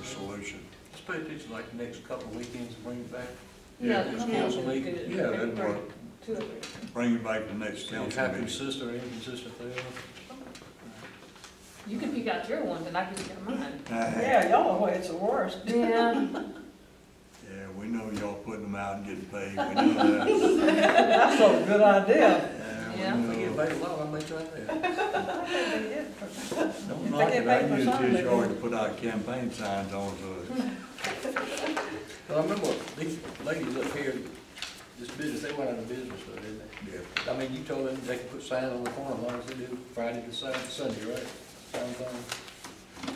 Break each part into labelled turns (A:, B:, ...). A: the solution.
B: Let's pay a picture like the next couple of weekends and bring it back.
A: Yeah,
C: Yeah,
B: just
C: come
B: give
C: out
B: us a
C: and
B: leak.
C: do it.
A: Yeah, that'd
C: Bring
A: work.
C: Two of it.
A: Bring it back to the next
B: See
A: council
B: how
A: meeting.
B: consistent or inconsistent they are.
C: You can pick out your ones and I can pick out mine.
A: Yeah,
D: Yeah, y'all know it's the worst.
C: Yeah.
A: we know y'all putting them out and getting paid, we know that.
D: That's a good idea.
A: Yeah,
C: Yeah.
A: we
B: If I get
A: know.
B: paid a lot, I may try that. Don't
D: If I
B: knock
D: get
B: it, I
D: paid
A: I
D: for
B: use-
A: used
D: something,
A: his
D: they
A: yard to put out campaign signs on, so
B: But I remember these ladies up here, this business, they went out of business, though, didn't they?
A: yeah,
B: I mean, you told them they could put sign on the corner, as long as they do Friday to Sun- Sunday, right? Signs on.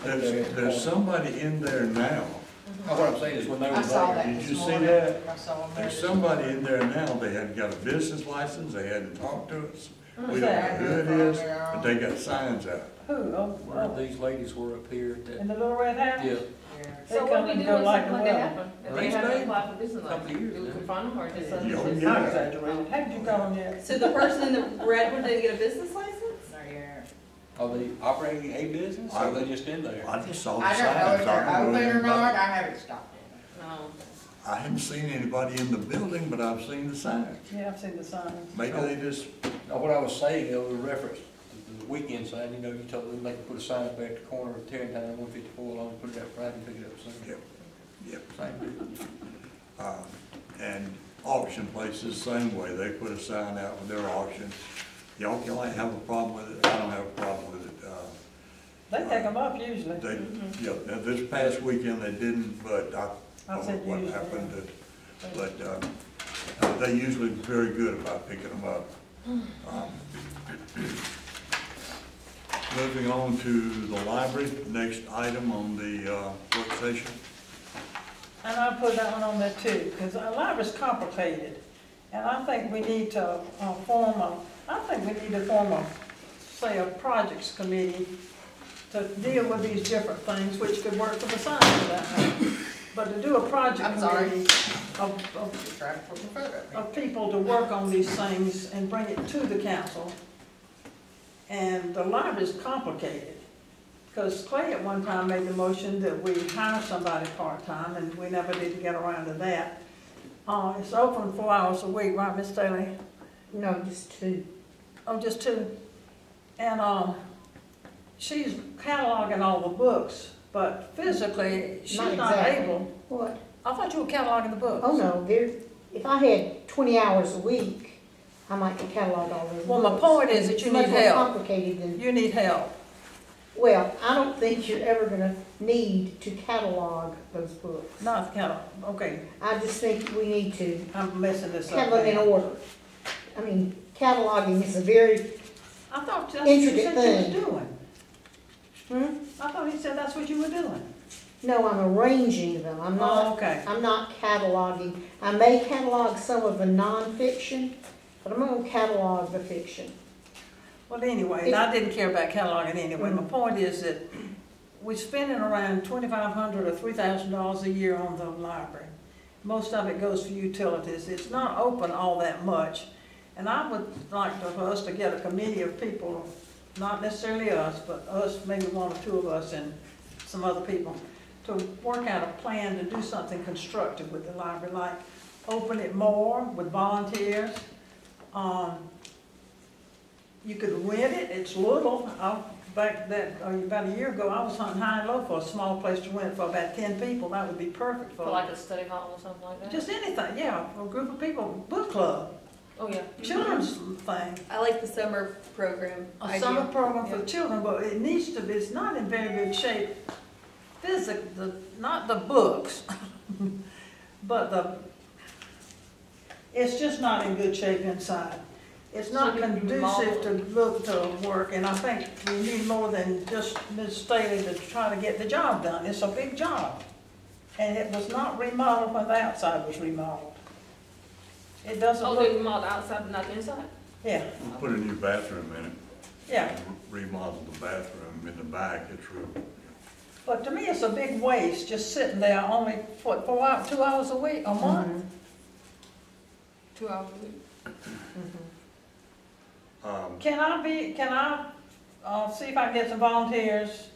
A: There's, there's somebody in there now,
B: Now, What I'm saying is when they were
E: I saw
B: there,
E: that
A: Did you
E: this
A: see
E: morning.
A: that?
E: I saw that.
A: there's somebody in there now, they hadn't got a business license, they hadn't talked to us. We don't know who it is, but they got signs out.
D: Who, oh,
B: where
D: oh,
B: these ladies were up here,
D: in
B: that,
D: the little red house?
B: yeah,
E: Yeah.
C: So
D: They
C: what
D: come
C: do we
D: and
C: do
D: go
C: when
D: like
C: something like
D: wild.
C: that happens? If they have to
B: Arrange
C: apply for business license,
B: Couple of years,
C: do we
B: yeah.
C: confront them or just? send
A: Yeah,
C: them to-
D: Not exaggerated, how did you go on yet?
F: So the person in the red, one didn't get a business license?
E: Yeah.
B: are they operating a business, or are they just in there?
A: I just saw the
E: I don't know if
A: signs,
E: they're
A: I don't know
E: open or not,
A: anybody.
E: I haven't stopped it.
C: No.
A: I haven't seen anybody in the building, but I've seen the signs.
D: Yeah, I've seen the signs.
A: Maybe they just,
B: Now, what I was saying, though, in reference to the weekend sign, you know, you told them they could put a sign up there at the corner of Tarrentine and one fifty-four along, put it up Friday and pick it up Sunday.
A: yep, yep.
B: Same deal.
A: Um, And auction places, same way, they put a sign out with their auction. Y'all can like have a problem with it, I don't have a problem with it. Uh,
D: They take them up usually.
A: They, yeah, now this past weekend they didn't, but I
D: Mm-hmm. I
A: don't know
D: said
A: what
D: usually,
A: happened. to- But um, uh, they usually very good about picking them up.
D: Hmm.
A: Um, Moving on to the library, next item on the uh, work session.
D: And I put that one on there too, because a lot is complicated. And I think we need to uh, form a, I think we need to form a, say, a projects committee to deal with these different things, which could work for the science of that. But to do a project
E: I'm sorry.
D: committee of, of
E: Just trying to put the photo. up.
D: of people to work on these things and bring it to the council. And the library is complicated, because Clay at one time made the motion that we hire somebody part-time, and we never did get around to that. Uh, it's open four hours a week, right, Miss Staley?
G: No, just two.
D: Oh, just two. And, um, she's cataloging all the books, but physically, she's
G: Not
D: not
G: exactly.
D: able.
G: What?
D: I thought you were cataloging the books.
G: Oh, no, there, if I had twenty hours a week, I might catalog all those.
D: Well, my
G: books.
D: point is that you need
G: It's much more
D: help.
G: complicated than,
D: You need help.
G: well, I don't think you're ever gonna need to catalog those books.
D: Not catalog, okay.
G: I just think we need to
D: I'm messing this up.
G: have them in
D: now.
G: order. I mean, cataloging is a very,
D: I thought that's what you
G: Intricate
D: said you
G: thing.
D: were doing. I thought he said that's what you were doing.
G: no, I'm arranging them, I'm
D: Oh,
G: not,
D: okay.
G: I'm not cataloging. I may catalog some of the nonfiction, but I'm gonna catalog the fiction.
D: Well, anyway, I didn't care about cataloging anyway.
G: Mm.
D: My point is that we're spending around twenty-five hundred or three thousand dollars a year on the library. Most of it goes for utilities. It's not open all that much. And I would like to- for us to get a committee of people, not necessarily us, but us, maybe one or two of us and some other people, to work out a plan to do something constructive with the library, like open it more with volunteers. Um, you could rent it, it's little, I, back that, uh, about a year ago, I was hunting high and low for a small place to rent for about ten people, that would be perfect
C: For like a study hall or something like that?
D: Just anything, yeah, a group of people, book club,
C: Oh, yeah.
D: children's thing,
F: I like the summer program.
D: a
F: idea.
D: summer program
F: Yeah.
D: for children, but it needs to be, it's not in very good shape. Physic, the, not the books, but the, it's just not in good shape inside. It's not
C: So you- you
D: conducive to look to work, and I think we need more than just Ms. Staley to try to get the job done. It's a big job. And it was not remodeled when the outside was remodeled. It doesn't
C: Oh,
D: look,
C: they remodeled outside but not the inside?
D: yeah,
A: We'll put a new bathroom in it.
D: yeah.
A: remodel the bathroom in the back, it's real.
D: But to me, it's a big waste, just sitting there only, what, four hours, two hours a week, a month?
F: Two hours a week.
A: Um,
D: Can I be, can I, uh, see if I can get some volunteers